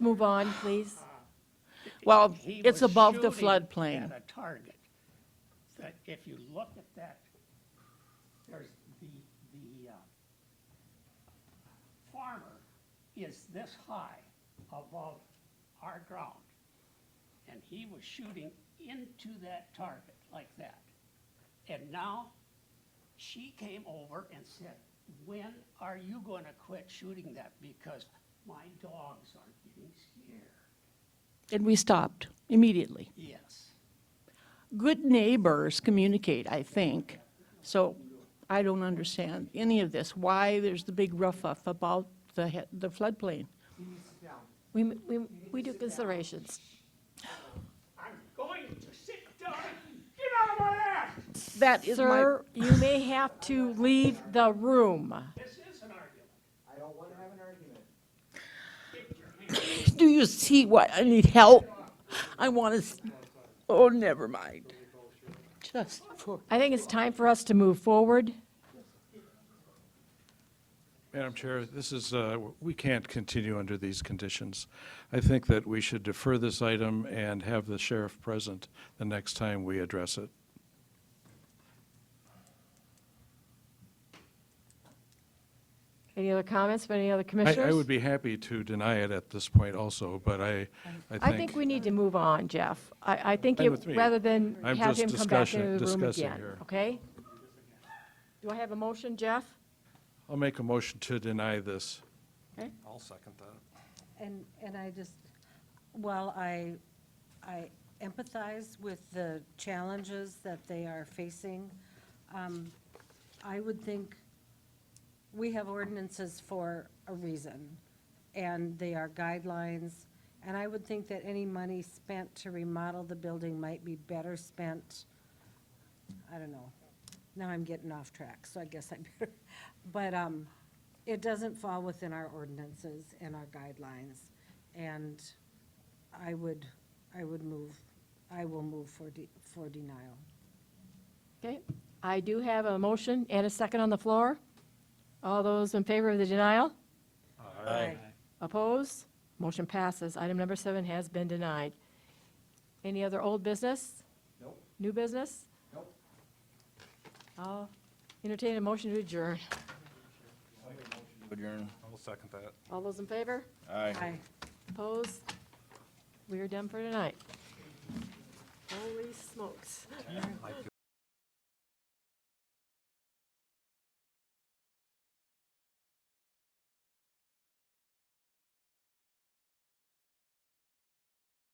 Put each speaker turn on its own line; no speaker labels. Move on, please.
Well,
He
it's
was
above the
shooting
floodplain.
At a target. That if you look at that, there's the, the, uh, farmer is this high above our ground. And he was shooting into that target like that. And now she came over and said, when are you gonna quit shooting that? Because my dogs are getting scared.
And we stopped immediately.
Yes.
Good neighbors communicate, I think. So I don't understand any of this, why there's the big rough-up about the he- the floodplain.
We, we, we do considerations.
I'm going to sit down and get out of my ass.
That is my,
Sir, you may have to leave the room.
This is an argument.
I don't want to have an argument.
do you see what, I need help? I want to, oh, never mind. Just for,
I think it's time for us to move forward.
Madam Chair, this is, uh, we can't continue under these conditions. I think that we should defer this item and have the sheriff present the next time we address it.
Any other comments from any other commissioners?
I, I would be happy to deny it at this point also, but I,
I think we need to move on, Jeff. I, I think
Fine
you,
with me.
rather than
I'm
have
just
him come back
discussion-
into the room
discussing
again,
here.
okay? Do I have a motion, Jeff?
I'll make a motion to deny this.
I'll second that.
And, and I just, while I, I empathize with the challenges that they are facing, um, I would think we have ordinances for a reason, and they are guidelines. And I would think that any money spent to remodel the building might be better spent, I don't know. Now I'm getting off track, so I guess I better, but, um, it doesn't fall within our ordinances and our guidelines. And I would, I would move, I will move for de, for denial.
Okay, I do have a motion and a second on the floor. All those in favor of the denial?
Aye.
Opposed? Motion passes. Item number seven has been denied. Any other old business?
Nope,
New business?
nope.
I'll entertain a motion to adjourn.
Adjourn.
I'll second that.
All those in favor?
Aye.
Aye.
Opposed? We are done for tonight. Holy smokes.
Might be